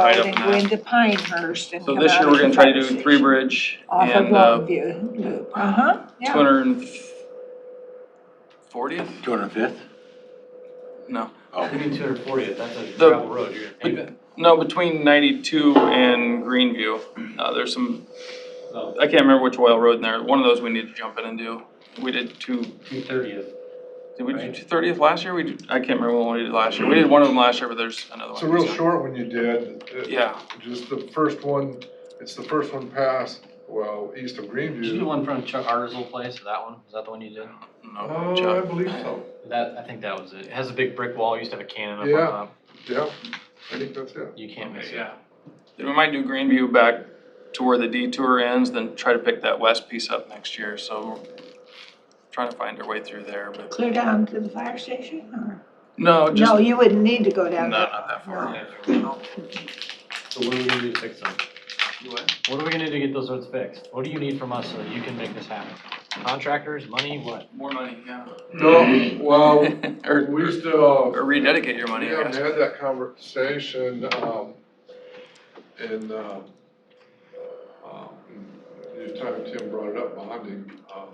Right up and in go that. into Pinehurst and So come this out year, we're into gonna try to do Fire Three Station Bridge Off of and, uh, two Longview Loop, uh-huh, yeah. hundred and fortieth? Two hundred fifth? No, Oh, You mean two hundred fortieth, that's a The- gravel road, you're gonna pave it. no, between ninety-two and Greenview, uh, there's some, Oh, I can't remember which oil road in there, one of those we need to jump in and do. We did two, two thirtieth. did we do Right. two thirtieth last year? We, did- I can't remember what we did last year, we did one of them last year, but there's another one. It's a real short one you did. It- Yeah, Just the first one, it's the first one past, well, east of Did you do Greenview. one from Chuck Arzel place, that one, is that the one you did? no, Oh, I Chuck, believe so, That, I think that was it, it has a big brick wall, It used to have a cannon up Yeah. on top, yeah, I think that's it. you can't miss it. yeah. Then we might do Greenview back to where the detour ends, then try to pick that west piece up next year, so we're trying to find our way through there, but. Clear down to the fire station or? No, just, No, no, you wouldn't need to go down there. not that far. Yeah. So what are we gonna do to fix them? What are we gonna do to get those roads fixed? What do you need from us so that you can make this happen? Contractors, money, what? More money, yeah. No, well, Or, we still, or rededicate your we money, I haven't guess. had that conversation, um, and, um, um, you time Tim brought it up, bonding, um,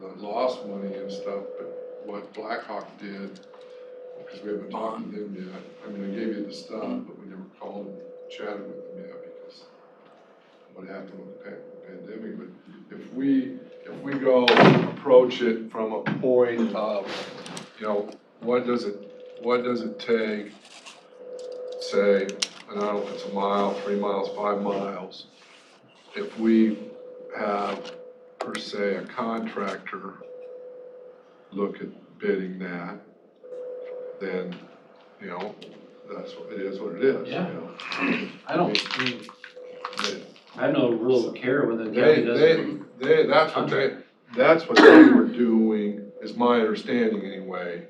the lost money and stuff, but what Blackhawk did, because we haven't talked to them yet, I mean, I gave you the stuff, but we never called and chatted with them yet, because what happened with the pa- pandemic, but if we, if we go approach it from a point of, you know, what does it, what does it take, say, I don't know if it's a mile, three miles, five miles, if we have, per se, a contractor look at bidding that, then, you know, that's, what it is what it is, you Yeah. know. I don't, I mean, They- I have no real care whether the They, county does it. they, they, that's what they, that's what they were doing, is my understanding anyway,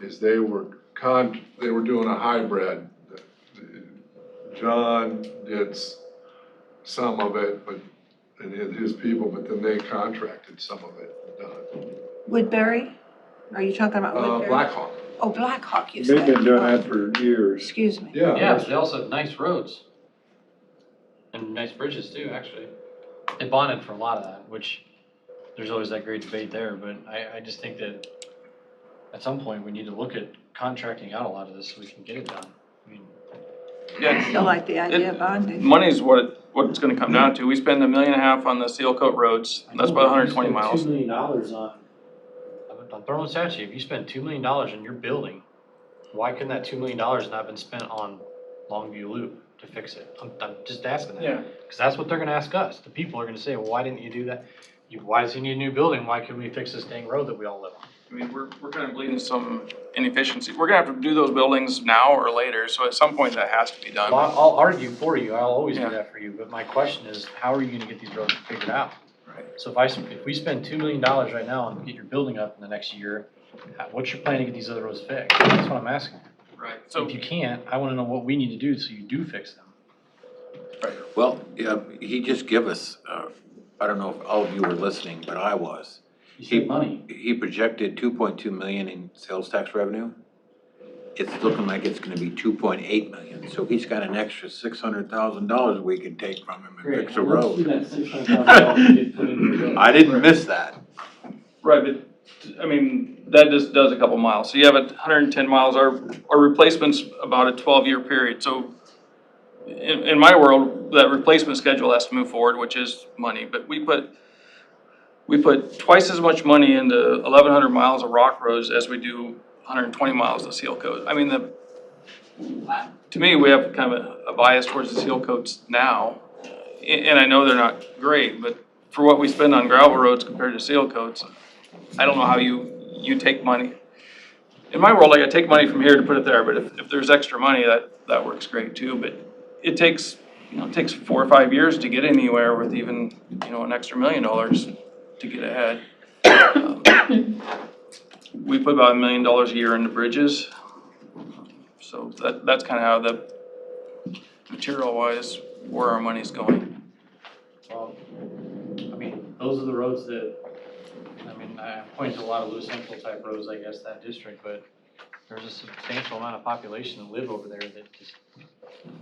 is they were con, they were doing a hybrid. John did s- some of it, but, and his, his people, but then they contracted some of it uh, done. Woodbury? Are you talking about Uh, Woodbury? Blackhawk, Oh, Blackhawk, you They've said. been doing Oh, that for years. Excuse me. yeah. Yeah, but they also have nice roads. And nice bridges too, actually. They bonded for a lot of that, which there's always that great debate there, but I, I just think that at some point, we need to look at contracting out a lot of this so we can get it done. I mean, Yeah, Still like the idea of bonding. Money's what, it- what it's gonna come down to. We spend a million and a half on the seal coat roads, I that's know, about if you hundred and twenty spend miles. Two million dollars on, I'm- I'm throwing this at you, if you spend two million dollars on your building, why couldn't that two million dollars not been spent on Longview Loop to fix it? I'm, I'm just asking that. Yeah. Because that's what they're gonna ask us. The people are gonna say, well, why didn't you do that? You, why does he need a new building? Why couldn't we fix this dang road that we all live on? I mean, we're, we're kind of bleeding some inefficiency. We're gonna have to do those buildings now or later, so at some point that has to be Well, done. I'll argue for you. I'll always Yeah. do that for you, but my question is, how are you gonna get these roads figured out? Right. So if I, sp- if we spend two million dollars right now and get your building up in the next year, how- what's your plan to get these other roads fixed? That's what I'm asking. Right, so, If you can't, I wanna know what we need to do so you do fix them. well, yeah, he just gave us, uh, I don't know if all of you were listening, but I was. you He- spend money. He projected two point two million in sales tax revenue. It's looking like it's gonna be two point eight million, so he's got an extra six hundred thousand dollars we can take from him and fix a Let's do road. that six hundred thousand dollars you did put into the road. I didn't miss that. right, but, I mean, that just does a couple miles. So you have a hundred and ten miles, our, our replacement's about a twelve-year period, so in, in my world, that replacement schedule has to move forward, which is money, but we put, we put twice as much money into eleven hundred miles of rock roads as we do hundred and twenty miles of seal coat. I mean, the, to me, we have kind of a- a bias towards the seal coats now, a- and I know they're not great, but for what we spend on gravel roads compared to seal coats, I don't know how you, you take money. In my world, like, I take money from here to put it there, but if, if there's extra money, that, that works great too, but it takes, you know, it takes four or five years to get anywhere with even, you know, an extra million dollars to get ahead. Um, We put about a million dollars a year into bridges. So that, that's kind of how the material wise, where our money's going. Well, I mean, those are the roads that, I mean, I point to a lot of Lewis Central type roads, I guess, that district, but there's a substantial amount of population that live over there that just